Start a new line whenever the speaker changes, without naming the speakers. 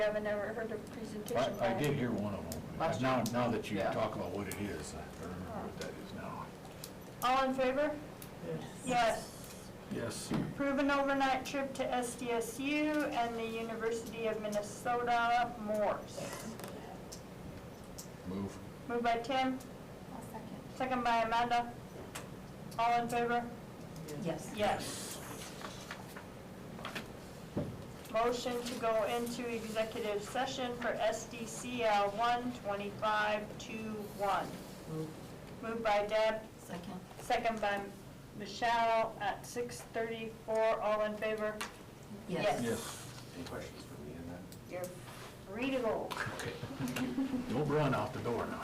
haven't ever heard a presentation.
I I
by-
did hear one of them.
Last
Now,
year.
now that you
Yeah.
talk about what it is, I remember what that is now.
All in favor? Yes.
Yes.
Approve an overnight trip to SDSU and the University of Minnesota Morse.
Move.
Moved by Tim,
I'll second.
second by Amanda. All in favor?
Yes.
Yes. Motion to go into executive session for SDCL 12521. Moved by Deb,
Second.
second by Michelle at 6:34. All in favor? Yes.
Yes.
Any questions for me in that?
You're free to go.
Okay. Don't run out the door now.